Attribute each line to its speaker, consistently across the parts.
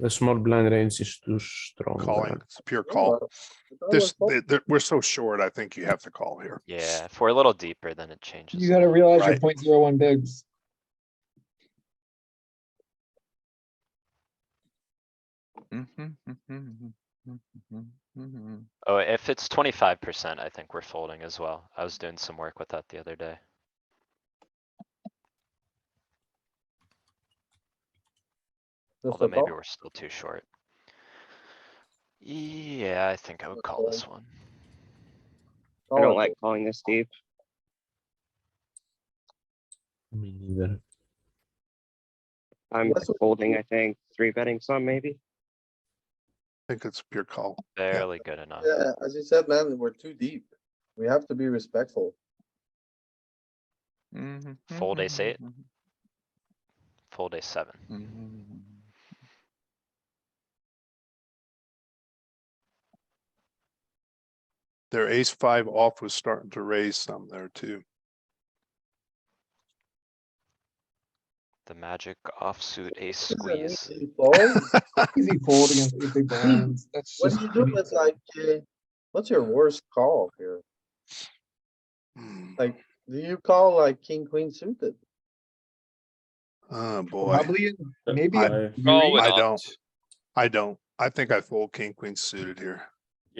Speaker 1: The small blind range is too strong.
Speaker 2: Calling,
Speaker 1: but-
Speaker 2: it's pure
Speaker 3: Oh,
Speaker 2: call. This, th- th- we're so short, I think you have to call here.
Speaker 4: Yeah, if we're a little deeper, then it changes.
Speaker 3: You gotta realize your
Speaker 2: Right.
Speaker 3: point zero one bigs.
Speaker 4: Oh, if it's twenty-five percent, I think we're folding as well. I was doing some work with that the other day.
Speaker 5: Just
Speaker 4: Although
Speaker 5: a
Speaker 4: maybe
Speaker 5: call.
Speaker 4: we're still too short. Yeah, I think I would call this one.
Speaker 6: I
Speaker 5: Oh,
Speaker 6: don't like calling this deep.
Speaker 1: Me neither.
Speaker 6: I'm
Speaker 5: That's what-
Speaker 6: folding, I think, three betting some maybe.
Speaker 2: I think it's pure call.
Speaker 4: Barely good enough.
Speaker 5: Yeah, as you said, man, we're too deep. We have to be respectful.
Speaker 4: Fold ace eight. Fold a seven.
Speaker 2: Their ace five off was starting to raise some there too.
Speaker 4: The magic offsuit ace
Speaker 5: This is an
Speaker 4: squeeze.
Speaker 5: easy fold.
Speaker 3: Easy fold against eight big blinds. That's
Speaker 5: What
Speaker 3: just.
Speaker 5: do you do with like, uh, what's your worst call here?
Speaker 2: Hmm,
Speaker 5: Like- Do you call like king, queen suited?
Speaker 2: Oh, boy.
Speaker 3: Probably, in- maybe.
Speaker 1: Oh,
Speaker 2: I-
Speaker 3: a
Speaker 7: Call
Speaker 3: three.
Speaker 7: with
Speaker 2: I
Speaker 7: all-
Speaker 2: don't. I don't. I think I fold king, queen suited here.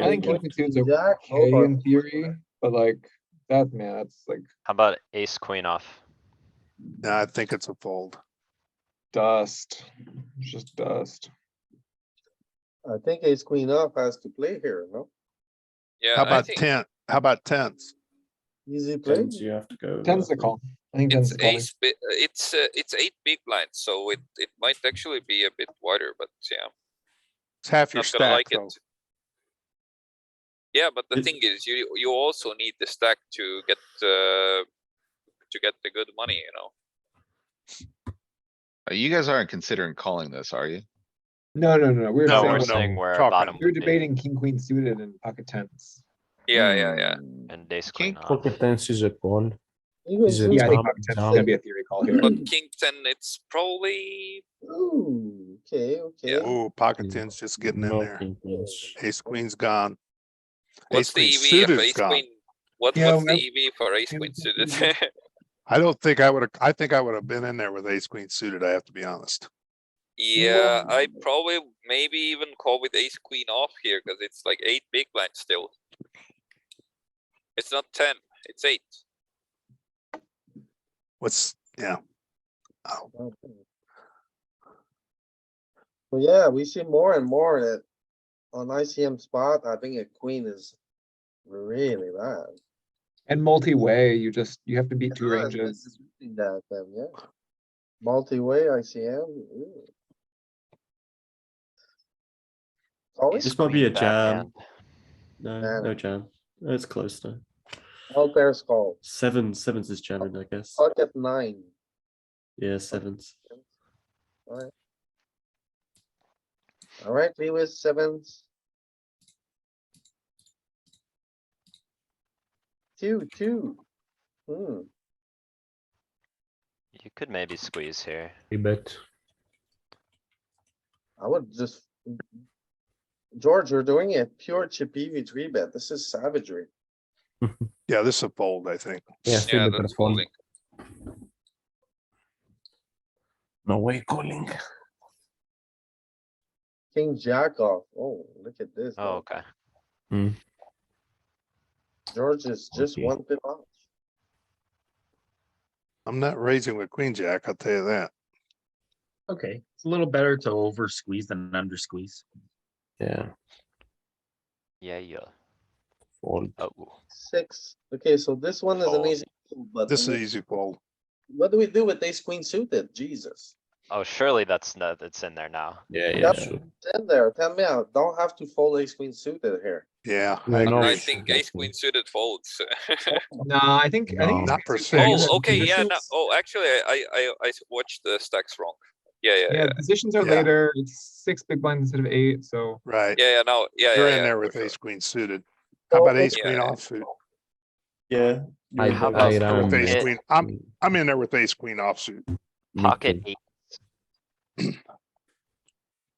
Speaker 3: I think king queen suited's
Speaker 5: Jack,
Speaker 3: okay
Speaker 5: over.
Speaker 3: in theory, but like, that, man, that's like,
Speaker 4: How about ace queen off?
Speaker 2: No, I think it's a fold.
Speaker 3: dust, It's just dust.
Speaker 5: I think ace, queen off has to play here, no?
Speaker 7: Yeah,
Speaker 2: How
Speaker 7: I
Speaker 2: about
Speaker 7: think
Speaker 2: ten? How about tens?
Speaker 5: Easy play.
Speaker 8: Tens, you have to go.
Speaker 3: Tens
Speaker 8: uh,
Speaker 3: the call. I think tens
Speaker 7: it's
Speaker 3: the call.
Speaker 7: ace, bi- uh, it's, uh, it's eight big blinds, so it, it might actually be a bit wider, but yeah,
Speaker 2: It's half your
Speaker 7: not gonna
Speaker 2: stack
Speaker 7: like
Speaker 2: though.
Speaker 7: it. Yeah, but the
Speaker 8: It-
Speaker 7: thing is, you, you also need the stack to get, uh, to get the good money, you know?
Speaker 9: Uh, You guys aren't considering calling this, are you?
Speaker 3: No, no, no, no, we're
Speaker 4: No,
Speaker 2: no,
Speaker 4: we're
Speaker 3: saying,
Speaker 2: no,
Speaker 4: saying where
Speaker 2: chalk it.
Speaker 4: bottom
Speaker 3: we're
Speaker 4: would be
Speaker 3: debating king, queen suited and pocket tens.
Speaker 7: Yeah, yeah, yeah.
Speaker 9: Hmm.
Speaker 4: and ace queen off.
Speaker 1: Pocket tens is a call.
Speaker 5: Even
Speaker 1: Is it-
Speaker 5: queen-
Speaker 3: Yeah, I think
Speaker 1: Jump,
Speaker 3: pocket tens is
Speaker 1: jump.
Speaker 3: gonna be a theory call here.
Speaker 7: But king ten, it's probably,
Speaker 5: Ooh, okay, okay.
Speaker 2: Ooh, pocket tens just getting in
Speaker 1: No
Speaker 2: there.
Speaker 1: king queens.
Speaker 2: Ace queen's gone. Ace
Speaker 7: what's the
Speaker 2: queen
Speaker 7: EV of
Speaker 2: suited's
Speaker 7: ace
Speaker 2: gone.
Speaker 7: queen? What,
Speaker 3: Yeah,
Speaker 7: what's
Speaker 3: well,
Speaker 7: the EV for ace
Speaker 3: it
Speaker 7: queen
Speaker 3: was-
Speaker 7: suited?
Speaker 2: I don't think I would have, I think I would have been in there with ace queen suited, I have to be honest.
Speaker 7: Yeah, I probably maybe even call with ace queen off here, cause it's like eight big blinds still. It's not ten, it's eight.
Speaker 2: What's, yeah. Oh,
Speaker 5: So yeah, we see more and more that on ICM spot, I think a queen is really bad.
Speaker 3: And multi-way, you just, you have to beat two
Speaker 5: Yeah, it's
Speaker 3: ranges.
Speaker 5: interesting That, then, yeah. Multi-way ICM. ooh. Always
Speaker 8: This might be a
Speaker 4: Queen
Speaker 8: jam.
Speaker 4: backhand.
Speaker 8: No,
Speaker 5: Yeah.
Speaker 8: no jam. Oh, It's close though.
Speaker 5: all pairs call,
Speaker 8: Seven, sevens is jamming, I guess.
Speaker 5: pocket nine.
Speaker 8: Yeah, sevens.
Speaker 5: Alright, Lewis, sevens. Two, two. Hmm,
Speaker 4: You could maybe squeeze here.
Speaker 1: Three bet.
Speaker 5: I would just. George, you're doing a pure chip E V three bet. This is savagery.
Speaker 2: yeah, this is a fold, I think.
Speaker 1: Yeah, three
Speaker 7: Yeah,
Speaker 1: bet
Speaker 7: that's
Speaker 1: are fold.
Speaker 7: folding.
Speaker 1: No way calling.
Speaker 5: King jack off. Oh, look at this.
Speaker 4: Oh,
Speaker 5: man.
Speaker 4: okay.
Speaker 5: George is just
Speaker 1: Okay.
Speaker 5: one pip off.
Speaker 2: I'm not raising with queen jack, I'll tell you that.
Speaker 10: Okay, it's a little better to over squeeze than under squeeze.
Speaker 1: Yeah,
Speaker 4: Yeah, yeah.
Speaker 1: fold.
Speaker 4: Oh,
Speaker 5: Six. Okay, so this one is an
Speaker 4: Fold.
Speaker 5: easy. fold, But
Speaker 2: Oh, This is
Speaker 5: we-
Speaker 2: an easy fold.
Speaker 5: What do we do with ace queen suited? Jesus.
Speaker 4: oh, surely that's not, that's in there now.
Speaker 8: Yeah,
Speaker 5: yeah,
Speaker 1: sure.
Speaker 5: Ten there, tell me out. Don't have to fold ace queen suited here.
Speaker 2: Yeah.
Speaker 1: No,
Speaker 2: I
Speaker 1: no.
Speaker 2: agree.
Speaker 7: I
Speaker 1: we
Speaker 7: think
Speaker 1: should
Speaker 7: ace
Speaker 1: definitely-
Speaker 7: queen suited folds.
Speaker 3: No, I think, I think.
Speaker 1: No.
Speaker 3: it's
Speaker 2: Not per se.
Speaker 3: actually valuable
Speaker 7: Oh, okay, yeah, no,
Speaker 3: positions.
Speaker 7: oh, actually, I, I, I s- watched the stacks wrong. Yeah, yeah, yeah,
Speaker 3: Yeah, positions are
Speaker 2: Yeah.
Speaker 3: later, it's six big blinds instead of eight, so.
Speaker 2: Right,
Speaker 7: yeah, yeah, no, yeah,
Speaker 2: you're
Speaker 7: yeah,
Speaker 2: in
Speaker 7: yeah,
Speaker 2: there
Speaker 7: for
Speaker 2: with
Speaker 7: sure. Oh,
Speaker 2: ace queen suited. How about ace
Speaker 7: Yeah.
Speaker 2: queen offsuit?
Speaker 8: Yeah.
Speaker 1: I-
Speaker 8: yeah.
Speaker 4: How
Speaker 2: I'm
Speaker 4: about
Speaker 1: I
Speaker 2: with
Speaker 1: ran
Speaker 2: ace
Speaker 4: it-
Speaker 2: queen, I'm, I'm in there with ace queen offsuit.
Speaker 1: me
Speaker 4: Pocket
Speaker 1: too.
Speaker 4: eight